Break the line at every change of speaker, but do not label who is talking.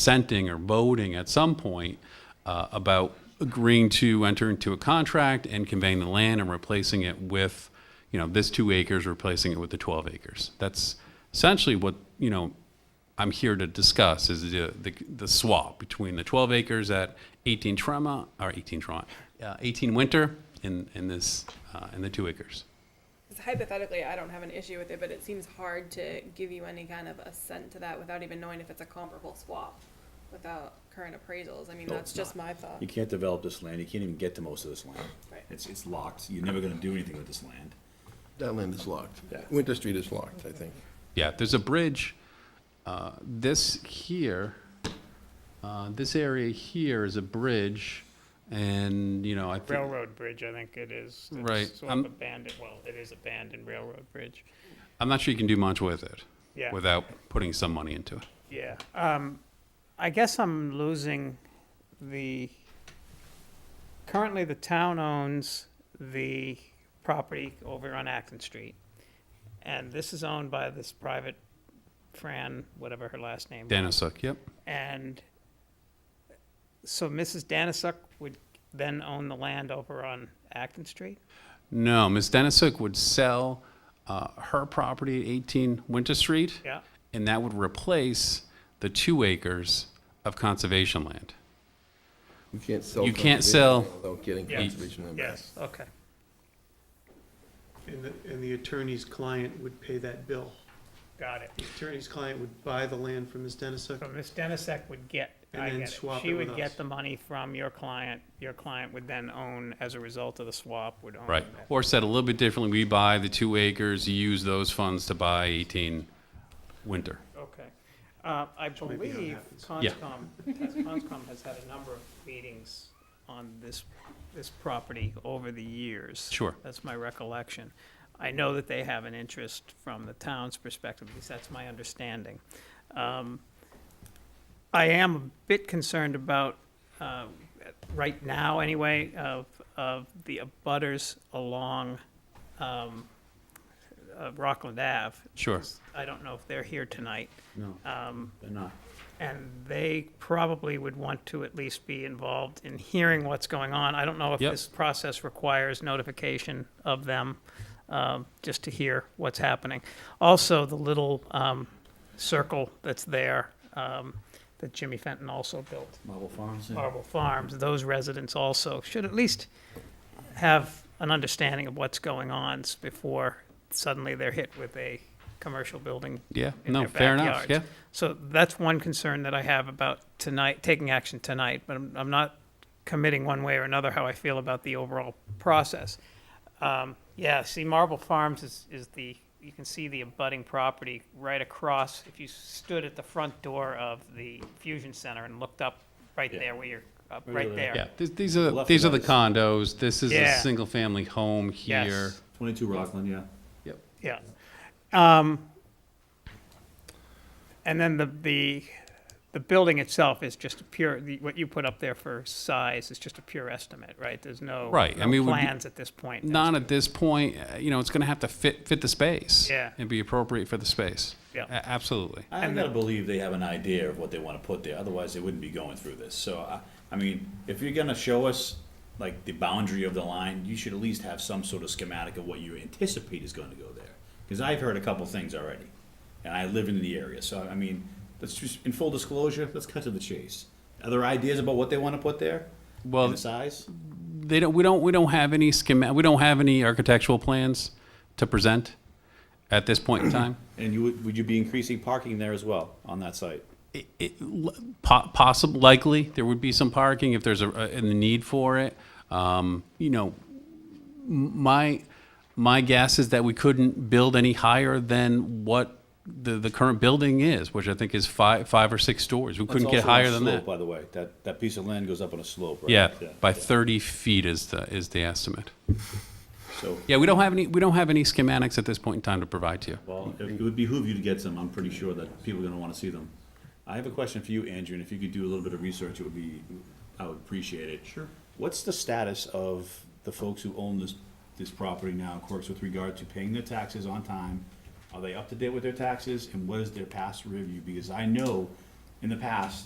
dissenting or voting at some point uh, about agreeing to enter into a contract and conveying the land and replacing it with, you know, this two acres, replacing it with the 12 acres. That's essentially what, you know, I'm here to discuss is the, the, the swap between the 12 acres at 18 Tremont, or 18 Tremont, uh, 18 Winter and, and this, uh, and the two acres.
'Cause Hypothetically, I don't have an issue with it, but it seems hard to give you any kind of assent to that without even knowing if it's a comparable swap, without current appraisals. I mean,
No,
that's
it's
just
not.
my thought.
You can't develop this land, you can't even get to most of this land.
Right.
It's, it's locked, you're never gonna do anything with this land.
That land is locked.
Yeah.
Winter Street is locked, I think.
Yeah, there's a bridge. Uh, This here, uh, this area here is a bridge, and, you know, I think,
Railroad Bridge, I think it is. It's
Right, Um,
Sort
I'm-
of abandoned, well, it is abandoned railroad bridge.
I'm not sure you can do much with it
Yeah.
without putting some money into it.
Yeah, um, I guess I'm losing the, currently the town owns the property over on Acton Street. And this is owned by this private Fran, whatever her last name. was.
Danasuk, yep.
And so Mrs. Danisuk would then own the land over on Acton Street?
No, Ms. Danasuk would sell uh, her property at 18 Winter Street.
Yeah.
And that would replace the two acres of conservation land.
You can't sell.
You can't
conservation
sell-
land Without getting
Yes.
conservation land back.
Yes, okay.
And the, and the attorney's client would pay that bill.
Got it.
The attorney's client would buy the land from Ms.
So
Denisuk.
Ms. Denisek would get,
And
I
then
get it.
swap
She
it with
would get
us.
the money from your client. Your client would then own, as a result of the swap, would own.
Right.
that.
Or said a little bit differently, we buy the two acres, you use those funds to buy 18 Winter.
Okay. Uh, I
may be how it
believe
happens.
Yeah.
Conscom, has- Conscom has had a number of meetings on this, this property over the years.
Sure.
That's my recollection. I know that they have an interest from the town's perspective, at least that's my understanding. Um, I am a bit concerned about, uh, right now anyway, of, of the abutters along, um, uh, Rockland Ave.
Sure.
I don't know if they're here tonight.
No,
Um,
they're not.
and they probably would want to at least be involved in hearing what's going on. I don't know if
Yep.
this process requires notification of them, um, just to hear what's happening. Also, the little, um, circle that's there, um, that Jimmy Fenton also built,
Marble Farms, yeah.
Marble Farms, those residents also should at least have an understanding of what's going on s- before suddenly they're hit with a commercial building
Yeah,
in
no,
their
fair enough, yeah.
backyards. So that's one concern that I have about tonight, taking action tonight, but I'm, I'm not committing one way or another how I feel about the overall process. Um, yeah, see, Marble Farms is, is the, you can see the abutting property right across. If you stood at the front door of the Fusion Center and looked up right
Yeah.
there where you're, up
Right
right
over
there.
there.
Yeah, th- these are,
Left
these are the
and
condos, this is a
Yeah.
single-family home here.
Yes,
Twenty-two Rockland, yeah.
Yep.
yeah. Um, and then the, the, the building itself is just a pure, the- what you put up there for size is just a pure estimate, right? There's no.
Right, I
no
mean, it would be-
Plans at this point.
Not at this point, uh, you know, it's gonna have to fit, fit the space.
Yeah.
And be appropriate for the space.
Yeah.
A- Absolutely.
I gotta believe they have an idea of what they wanna put there, otherwise they wouldn't be going through this. So, I, I mean, if you're gonna show us, like, the boundary of the line, you should at least have some sort of schematic of what you anticipate is gonna go there. Cause I've heard a couple things already, and I live in the area, so, I mean, let's just, in full disclosure, let's cut to the chase. Other ideas about what they wanna put there?
Well,
And the size?
They don't, we don't, we don't have any schema, we don't have any architectural plans to present at this point in time.
And you, would would you be increasing parking there as well, on that site?
it- it- po- possible, likely, there would be some parking if there's a, and the need for it. Um, You know, m- my, my guess is that we couldn't build any higher than what the, the current building is, which I think is five, five or six stories. We couldn't get
That's also on a
higher than
slope,
that.
By the way, that, that piece of land goes up on a slope, right?
Yeah, by 30 feet is the, is the estimate.
So,
Yeah, we don't have any, we don't have any schematics at this point in time to provide to you.
well, it it would behoove you to get some, I'm pretty sure that people are gonna wanna see them. I have a question for you, Andrew, and if you could do a little bit of research, it would be, I would appreciate it. Sure. What's the status of the folks who own this, this property now, of course, with regard to paying their taxes on time? Are they up to date with their taxes, and what is their past review? Because I know in the past,